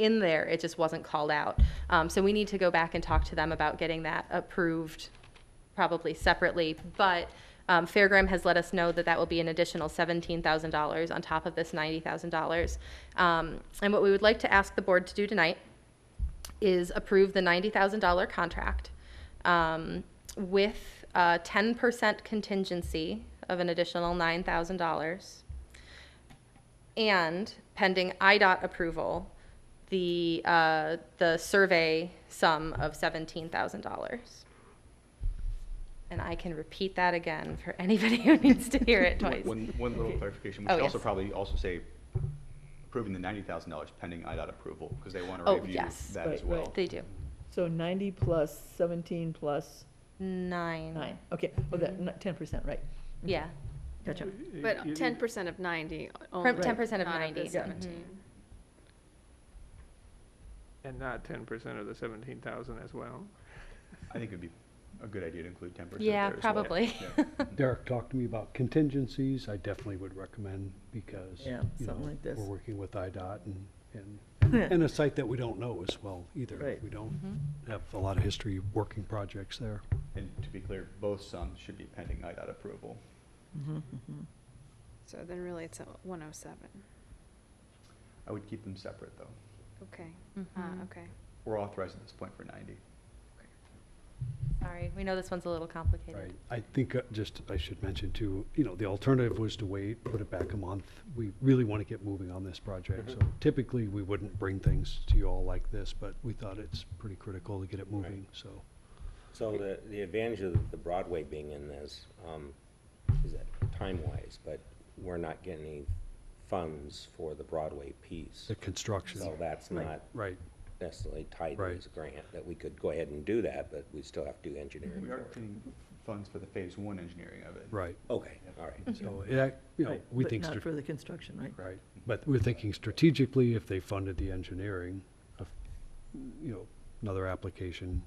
in there, it just wasn't called out. Um, so we need to go back and talk to them about getting that approved probably separately, but um, Fairgram has let us know that that will be an additional $17,000 on top of this $90,000. Um, And what we would like to ask the board to do tonight is approve the $90,000 contract um, with a 10% contingency of an additional $9,000. And pending IDOT approval, the, uh, the survey sum of $17,000. And I can repeat that again for anybody who needs to hear it twice. One, one little clarification, we Oh, should also yes. probably also say approving the ninety thousand dollars pending IDOT approval, because they want to Oh, review yes. that as Right, well. right. They do. So ninety plus seventeen plus Nine. nine, okay, oh, Mm-hmm. that, ten percent, right, Yeah, gotcha. But ten percent of ninety only. From 10% of not 90, the yeah. Mm-hmm. Seventeen. And not ten percent of the seventeen thousand as well. I think it'd be a good idea to include ten percent yeah, there as well. probably. Yeah. Derek talked to me about contingencies, I definitely would recommend because, Yeah, you something know, like this. we're working with IDOT and, and, and a site that we don't know as well either. Right. We don't have a lot of history working projects there. And to be clear, both sums should be pending IDOT approval. So then really it's one oh seven. I would keep them separate, though. Okay, Mhm. uh, okay. We're authorized at this point for ninety. Sorry, we know this one's a little complicated. Right, I think uh, just, I should mention too, you know, the alternative was to wait, put it back a month. We really want to get moving on this project, so Mm-hmm. typically we wouldn't bring things to you all like this, but we thought it's pretty critical to get it moving, so. So the, the advantage of the Broadway being in this, um, is that time-wise, but we're not getting any funds for the Broadway piece. The construction, So that's not right, necessarily tied to Right. this grant, that we could go ahead and do that, but we still have to do engineering We for are it. getting funds for the phase one engineering of it. right. Okay, all right. So, yeah, you know, Right, we but think. Not strate- for the construction, right? Right, but we're thinking strategically, if they funded the engineering, of, you know, another application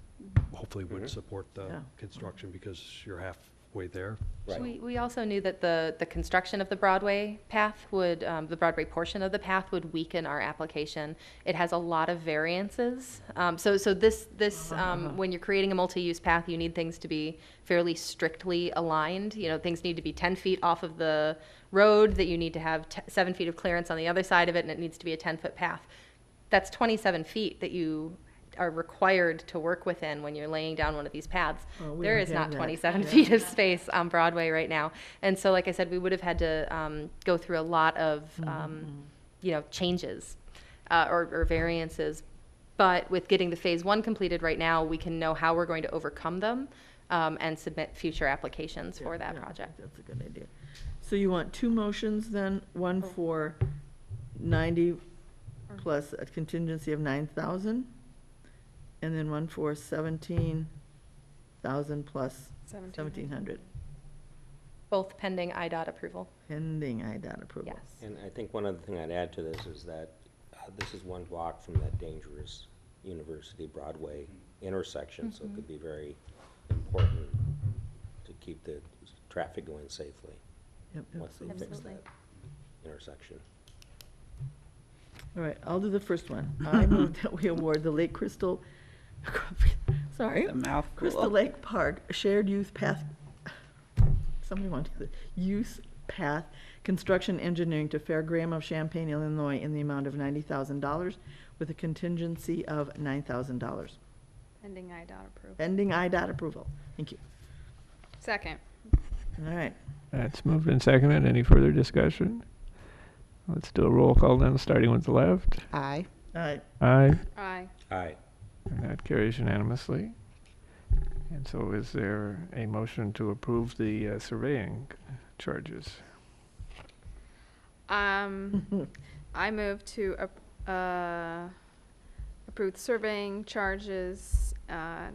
hopefully would support the Yeah. construction because you're halfway there. Right. We, we also knew that the, the construction of the Broadway path would, um, the Broadway portion of the path would weaken our application. It has a lot of variances. Um, so, so this, this, Uh-huh, um, when you're creating a multi-use path, you need things to be fairly strictly aligned. You know, things need to be ten feet off of the road, that you need to have t- seven feet of clearance on the other side of it, and it needs to be a ten-foot path. that's 27 feet that you are required to work within when you're laying down one of these paths. Oh, we there don't is have not that. 27 feet of space on Broadway right now. And so, like I said, we would have had to um, go through a lot of, Mm-hmm. um, you know, changes uh, or, or variances. But with getting the phase one completed right now, we can know how we're going to overcome them um, and submit future applications for that Yeah, yeah, I think project. That's a good idea. So you want two motions then, one Oh. for ninety plus a contingency of nine thousand, and then one for seventeen thousand plus seventeen hundred, Both pending IDOT approval. pending IDOT approval. Yes. And I think one other thing I'd add to this is that uh, this is one block from that dangerous University Broadway intersection, so Mm-hmm. it could be very important to keep the traffic going safely Yep, yep. once they fix that intersection. All right, I'll do the first one. I move that we award the Lake Crystal, sorry. Crystal Lake Park Shared Youth Path, somebody want to, do the Youth Path Construction Engineering to Fair Graham of Champaign, Illinois, in the amount of ninety thousand dollars with a contingency of nine thousand dollars, Pending IDOT approval. pending IDOT approval. Thank you. Second, All right, That's moved and seconded. Any further discussion? Let's do a roll call then, starting with the left. Aye. all right, Aye. aye. Aye. And that carries unanimously. And so is there a motion to approve the uh, surveying charges? Um, I move to, ap- uh, approve the surveying charges, uh,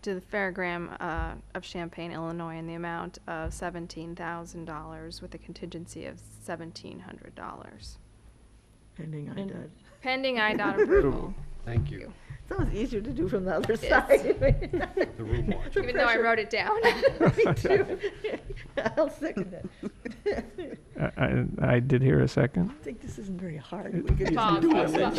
to the Fairgram, uh, of Champaign, Illinois in the amount of seventeen thousand dollars with a contingency of seventeen hundred dollars. pending IDOT. Pending IDOT approval, Thank you. It's always easier to do from the other is. side. The room watch. even though I pressure. wrote it down. Me too. I'll second it. I, I, I did hear a second. I think this isn't very hard. We could just Bob, do it. Bob.